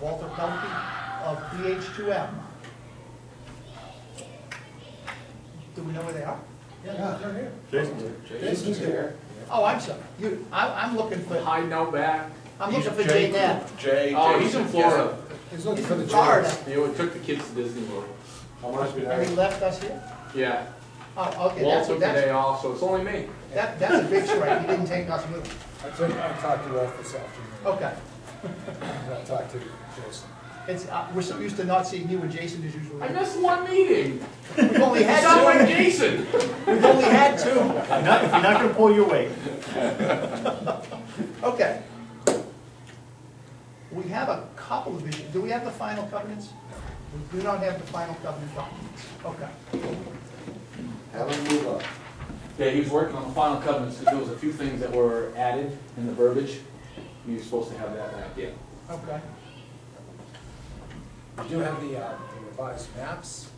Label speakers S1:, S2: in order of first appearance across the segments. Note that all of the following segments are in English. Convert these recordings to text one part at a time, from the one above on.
S1: Walter Pelkey of PH2M. Do we know where they are?
S2: Yeah, they're here.
S3: Jason's
S2: Jason's here.
S1: Oh, I'm sorry, you, I, I'm looking for,
S4: Hiding out back.
S1: I'm looking for Jay Knapp.
S3: Jay.
S4: Oh, he's in
S3: Jason,
S4: Florida.
S2: He's looking for the
S1: Florida,
S2: chairs.
S4: He took the kids to Disney World.
S2: How much we
S1: and he
S2: have?
S1: left us here?
S4: Yeah.
S1: Oh, okay,
S4: Walt
S1: that's,
S4: took the
S1: that's,
S4: day off, so it's only me.
S1: that, that's a big strike, he didn't take us with him.
S2: I took, I talked to Ralph this afternoon.
S1: Okay,
S2: And I talked to Jason.
S1: it's, uh, we're so used to not seeing you and Jason as usual.
S4: I missed one meeting.
S1: We've only
S4: It's not like
S1: had two,
S4: Jason.
S1: we've only had two,
S3: If you're not gonna pull your weight.
S1: okay. We have a couple of issues, do we have the final covenants? We do not have the final covenant documents, okay.
S2: Have him move up.
S4: Yeah, he was working on the final covenants because there was a few things that were added in the verbiage. He was supposed to have that back, yeah.
S1: Okay,
S2: We do have the uh, the revised maps.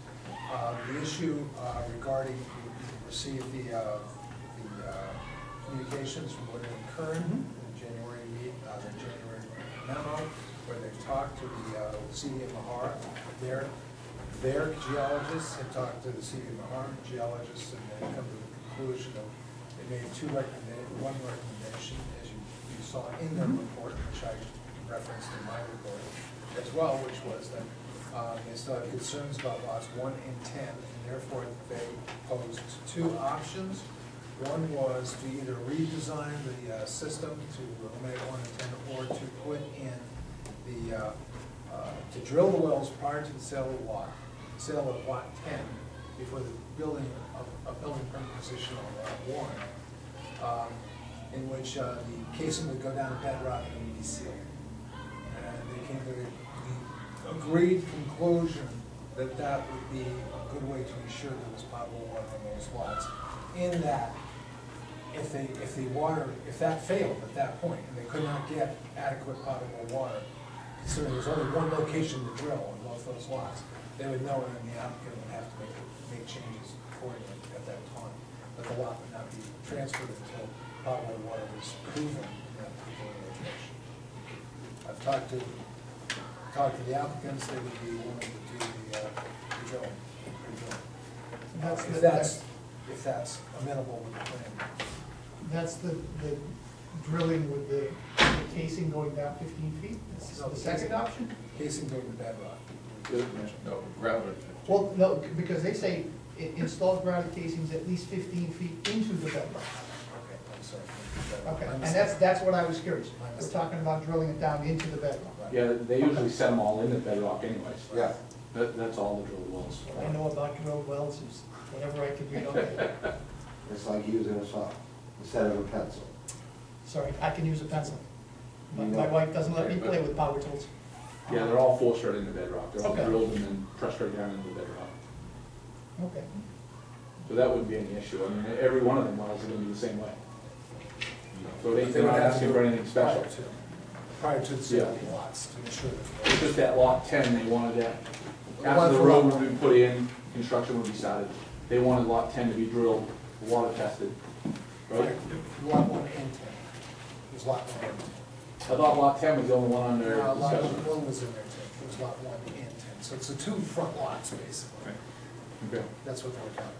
S2: Uh, The issue uh, regarding, we received the, uh, the uh, communications from Woodland and Kern, the January meet, uh, the January memo, where they talked to the uh, CD of Mahara, their, their geologists had talked to the CD of Mahara geologists, and they come to the conclusion of, they made two recommenda, one recommendation, as you you saw in their report, which I referenced in my report as well, which was that um, they still have concerns about lots one and ten, and therefore they posed two options. One was to either redesign the uh, system to eliminate one and ten, or to put in the, uh, uh, to drill the wells prior to the sale of lot, sale of lot ten, before the building, of a building permit position on lot one um, in which uh, the casing would go down a bedrock and would be sealed. And they came to the- the agreed conclusion that that would be a good way to ensure there was potable water in those lots. In that, if they, if the water, if that failed at that point, and they could not get adequate potable water, considering there's only one location to drill on both those lots, they would know, and then the applicant would have to make, make changes accordingly at that time. But the lot would not be transferred until potable water was proven in that particular location. I've talked to, talked to the applicants, they would be willing to do the, uh, the drilling, the drilling.
S1: That's the-
S2: If that's, if that's amenable with the plan.
S1: that's the, the drilling with the the casing going down fifteen feet? That's
S2: No,
S1: the second
S2: casing.
S1: option?
S2: Casing going to bedrock.
S3: No, gravel.
S1: Well, no, c- because they say i- install grounded casings at least fifteen feet into the bedrock.
S2: Okay, I'm sorry.
S1: Okay,
S2: I'm
S1: and
S2: sorry.
S1: that's, that's what I was curious.
S2: My
S1: We're
S2: mistake.
S1: talking about drilling it down into the bedrock.
S2: Right.
S4: Yeah, they usually set them all in the bedrock anyways.
S2: Yeah.
S4: That, that's all the drill wells.
S1: I know about drilled wells is whatever I can read on it.
S5: It's like using a saw instead of a pencil.
S1: Sorry, I can use a pencil. My,
S5: You
S1: my
S5: know.
S1: wife doesn't let me play with power tools.
S4: Yeah, they're all forced right into bedrock. They're all
S1: Okay.
S4: drilled and then pressed right down into bedrock.
S1: Okay.
S4: So that wouldn't be any issue. I mean, every one of them wells is gonna be the same way. So they-
S2: They
S4: they're
S2: would
S4: not
S2: have to
S4: asking
S2: do
S4: for
S2: it
S4: anything special.
S2: prior to- Prior to the sale of
S4: Yeah.
S2: lots, to ensure
S4: It's
S2: that.
S4: just that lot ten, they wanted that,
S2: One
S4: after the
S2: for
S4: road
S2: lot
S4: would be put in, construction would be started. They wanted lot ten to be drilled, water tested, right?
S2: Lot one and ten. There's lot one and ten.
S4: I thought lot ten was the only one under
S2: Uh, Lot
S4: discussion.
S2: one was in there too. There's lot one and ten. So it's the two front lots, basically.
S4: Okay.
S2: That's what they were talking about.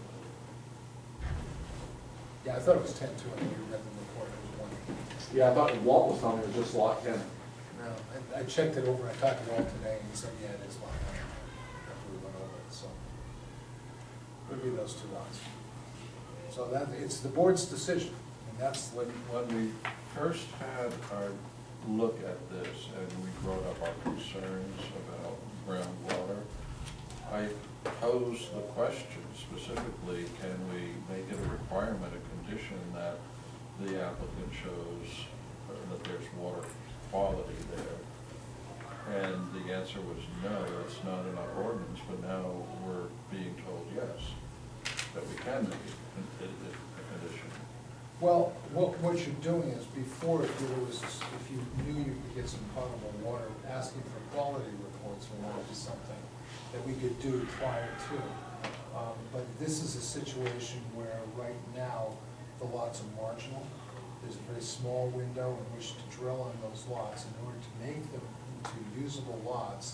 S2: Yeah, I thought it was ten too. I think you read the report. It was one.
S4: Yeah, I thought Walt was telling me it was just lot ten.
S2: No, I, I checked it over, I talked to Walt today, and he said, yeah, it is lot one, after we went over it, so. Would be those two lots. So that, it's the board's decision, and that's what,
S3: When, when we first had our look at this and we brought up our concerns about groundwater, I posed the question specifically, can we make it a requirement, a condition that the applicant shows that there's water quality there? And the answer was no, it's not in our ordinance, but now we're being told yes, that we can make it a- a a condition.
S2: well, what, what you're doing is, before, if there was, if you knew you could get some potable water, asking for quality reports or not is something that we could do prior to. Um, but this is a situation where, right now, the lots are marginal, There's a very small window in which to drill on those lots in order to make them to usable lots